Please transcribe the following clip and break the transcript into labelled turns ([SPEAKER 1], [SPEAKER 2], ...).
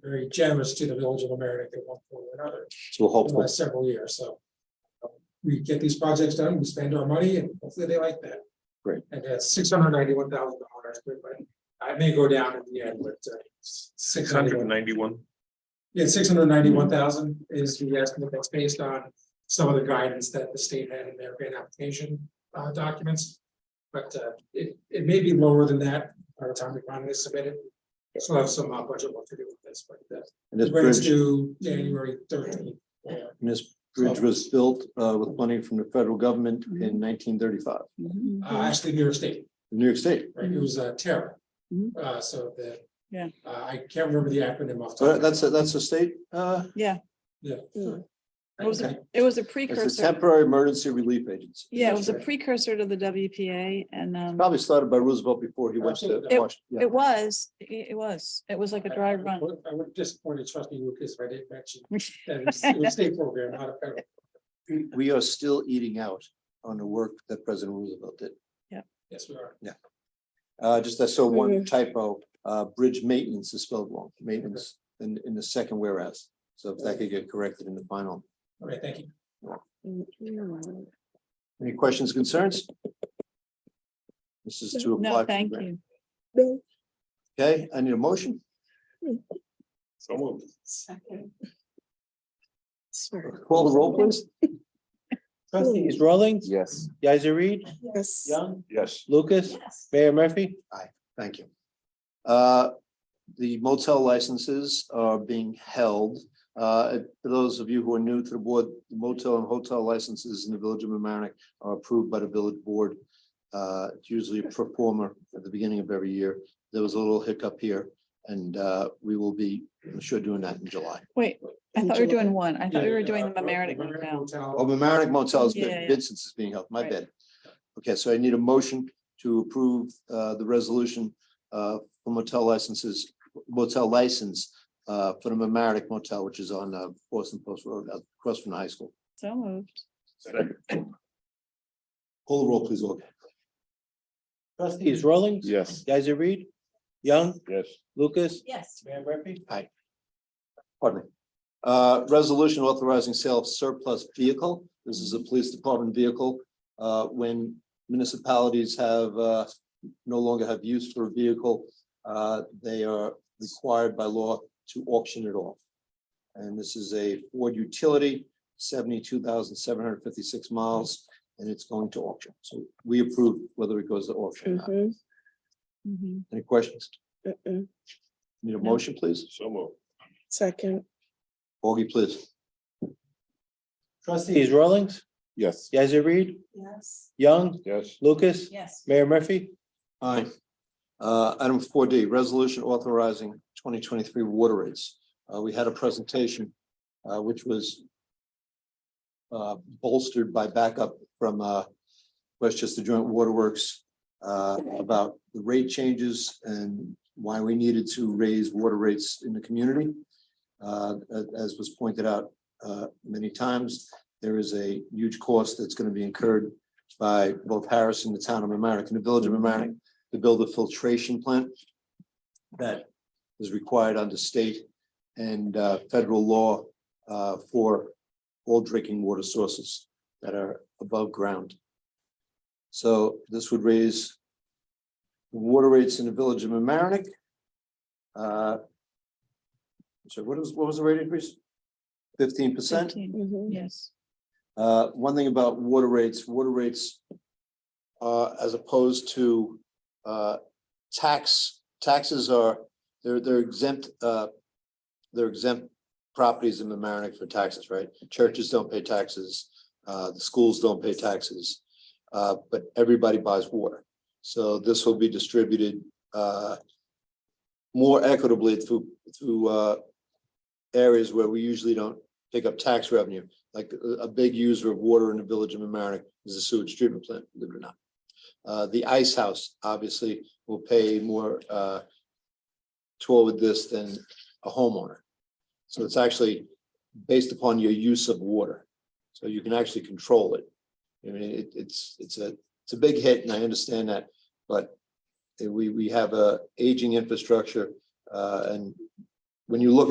[SPEAKER 1] very generous to the village of Amerik at one point or another
[SPEAKER 2] So
[SPEAKER 1] in the
[SPEAKER 2] hopeful,
[SPEAKER 1] last several years, so. um, We get these projects done, we spend our money, and hopefully they like that.
[SPEAKER 2] Great.
[SPEAKER 1] And that's six hundred ninety-one thousand dollars, but I may go down in the end, but uh, six
[SPEAKER 3] Hundred
[SPEAKER 1] hundred,
[SPEAKER 3] and ninety-one.
[SPEAKER 1] yeah, six hundred ninety-one thousand is the estimate that's based on some of the guidance that the state had in their grant application uh, documents. But uh, it, it may be lower than that by the time the grant is submitted. So I have some uh, budget work to do with this, but uh,
[SPEAKER 2] and this
[SPEAKER 1] the grant's
[SPEAKER 2] bridge,
[SPEAKER 1] due January thirteenth.
[SPEAKER 2] this bridge was built uh with money from the federal government
[SPEAKER 3] Mm-hmm.
[SPEAKER 2] in nineteen thirty-five,
[SPEAKER 1] Uh, actually, New York State,
[SPEAKER 2] New York State.
[SPEAKER 1] right, it was uh, Terra.
[SPEAKER 4] Mhm.
[SPEAKER 1] Uh, so the.
[SPEAKER 4] Mm-hmm. Yeah.
[SPEAKER 1] Uh, I can't remember the acronym off. the
[SPEAKER 2] So
[SPEAKER 1] top of
[SPEAKER 2] that's a, that's a state, uh,
[SPEAKER 4] Yeah,
[SPEAKER 1] my
[SPEAKER 4] What was
[SPEAKER 1] head.
[SPEAKER 4] it? it was a
[SPEAKER 2] it's a
[SPEAKER 4] precursor.
[SPEAKER 2] temporary emergency relief agency.
[SPEAKER 4] Yeah, it was a
[SPEAKER 1] Right.
[SPEAKER 4] precursor to the WPA and um,
[SPEAKER 2] Probably started by Roosevelt before he went to
[SPEAKER 1] Absolutely.
[SPEAKER 4] It-
[SPEAKER 2] Washington.
[SPEAKER 4] it was, it it was, it was like a dry
[SPEAKER 1] I
[SPEAKER 4] run.
[SPEAKER 1] would- I would disappoint you, trustee Lucas, if I didn't mention that it was- it was a state program, not a federal.
[SPEAKER 2] We are still eating out on the work that President Roosevelt did.
[SPEAKER 1] Yes, we are.
[SPEAKER 2] Uh, just I saw
[SPEAKER 4] Mm-hmm.
[SPEAKER 2] one typo, uh, bridge maintenance is spelled wrong, maintenance in, in the second whereas. So if that could get corrected in the final.
[SPEAKER 1] Okay, thank you.
[SPEAKER 2] Any questions, concerns? This is to apply. for
[SPEAKER 4] No,
[SPEAKER 2] the
[SPEAKER 4] thank
[SPEAKER 2] grant.
[SPEAKER 4] you.
[SPEAKER 2] Okay, I need a motion.
[SPEAKER 3] So moved.
[SPEAKER 2] Call the roll, please.
[SPEAKER 5] Trustees Rawlings,
[SPEAKER 3] Yes.
[SPEAKER 5] Guys, Reed,
[SPEAKER 4] Yes.
[SPEAKER 5] Young,
[SPEAKER 3] Yes.
[SPEAKER 5] Lucas, Mayor Murphy.
[SPEAKER 2] Thank you. Uh, The motel licenses are being held. Uh, For those of you who are new to the board, motel and hotel licenses in the village of Mamaroneck are approved by the village board. Uh, It's usually a performer at the beginning of every year. There was a little hiccup here and uh, we will be, I'm sure, doing that in July.
[SPEAKER 4] Wait, I thought we were doing one. I thought we
[SPEAKER 1] Yeah,
[SPEAKER 4] were
[SPEAKER 1] yeah,
[SPEAKER 4] doing
[SPEAKER 1] uh,
[SPEAKER 4] the Mamaroneck one
[SPEAKER 1] Mamaroneck
[SPEAKER 4] now.
[SPEAKER 1] Hotel.
[SPEAKER 2] Oh, Mamaroneck Motel is
[SPEAKER 4] Yeah,
[SPEAKER 2] good.
[SPEAKER 4] yeah.
[SPEAKER 2] Vincent's is being held, my
[SPEAKER 4] Right.
[SPEAKER 2] bad. Okay, so I need a motion to approve uh the resolution uh for motel licenses, motel license uh for the Mamaroneck Motel, which is on uh Boston Post Road, uh, across from the high school.
[SPEAKER 4] So moved.
[SPEAKER 2] Call the roll, please, Olga.
[SPEAKER 5] Trustees Rawlings.
[SPEAKER 3] Yes.
[SPEAKER 5] Guys, Reed, Young,
[SPEAKER 3] Yes.
[SPEAKER 5] Lucas,
[SPEAKER 4] Yes.
[SPEAKER 5] Mayor Murphy.
[SPEAKER 2] Pardon me. Uh, resolution authorizing sale of surplus vehicle. This is a police department vehicle. Uh, when municipalities have, uh, no longer have use for a vehicle, uh, they are required by law to auction it off. And this is a Ford utility, seventy-two thousand seven hundred fifty-six miles, and it's going to auction. So we approve whether it goes to auction or not.
[SPEAKER 4] Mhm.
[SPEAKER 2] Any questions?
[SPEAKER 6] Mm-mm.
[SPEAKER 2] Need a motion, please?
[SPEAKER 3] So moved.
[SPEAKER 6] Second,
[SPEAKER 2] Augie, please.
[SPEAKER 5] Trustees Rawlings,
[SPEAKER 3] Yes.
[SPEAKER 5] Guys, Reed,
[SPEAKER 4] Yes.
[SPEAKER 5] Young,
[SPEAKER 3] Yes.
[SPEAKER 5] Lucas,
[SPEAKER 4] Yes.
[SPEAKER 5] Mayor Murphy.
[SPEAKER 2] Aye. Uh, item four D, resolution authorizing twenty twenty-three water rates. Uh, we had a presentation, uh, which was uh, bolstered by backup from, uh, Westchester Joint Waterworks, uh, about the rate changes and why we needed to raise water rates in the community. Uh, a- as was pointed out, uh, many times, there is a huge cost that's going to be incurred by both Harris and the town of Mamaroneck and the village of Mamaroneck to build a filtration plant that is required under state and uh, federal law uh, for all drinking water sources that are above ground. So this would raise the water rates in the village of Mamaroneck. Uh, So what was, what was the rate increase? Fifteen percent?
[SPEAKER 4] Fifteen.
[SPEAKER 6] mhm,
[SPEAKER 4] Yes.
[SPEAKER 2] Uh, one thing about water rates, water rates. Uh, as opposed to, uh, tax, taxes are, they're, they're exempt, uh. They're exempt properties in Mamaroneck for taxes, right? Churches don't pay taxes, uh, the schools don't pay taxes. Uh, but everybody buys water, so this will be distributed, uh. More equitably through, through, uh. Areas where we usually don't pick up tax revenue like a, a big user of water in the village of Mamaroneck is the sewage treatment plant, believe it or not. Uh, the ice house obviously will pay more, uh, toward this than a homeowner. So it's actually based upon your use of water. So you can actually control it. I mean, it, it's, it's a, it's a big hit and I understand that, but we, we have a aging infrastructure, uh, and when you look at